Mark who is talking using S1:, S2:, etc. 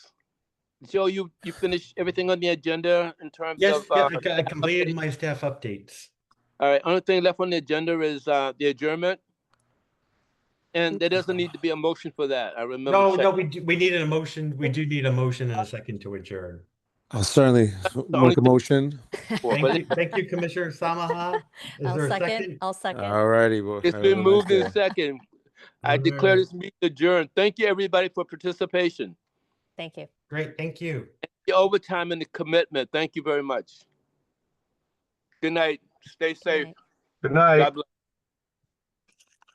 S1: Joe, you, you finished everything on the agenda in terms
S2: Yes,
S1: of,
S2: yes,
S1: uh,
S2: I c- I completed my staff updates.
S1: all right, only thing left on the agenda is, uh, the adjournment. And there doesn't need to be a motion for that. I remember.
S2: No, no,
S1: checking.
S2: we, do- we needed a motion. We do need a motion and a second to adjourn.
S3: I'll Uh, certainly
S1: only
S3: make a
S1: thing-
S3: motion.
S1: Well,
S2: Thank
S1: but
S2: you, thank you, Commissioner Samaha. Is
S4: I'll
S2: there a
S4: second,
S2: second?
S4: I'll second.
S3: All righty. well,
S1: It's
S3: have a
S1: been
S3: nice
S1: moved
S3: day.
S1: in second. I declare this meeting adjourned. Thank you, everybody, for participation.
S4: Thank you.
S2: Great, thank you.
S1: The overtime and the commitment. Thank you very much. Good night. Stay
S4: Good
S1: safe.
S4: night.
S5: Good night.
S1: God bless.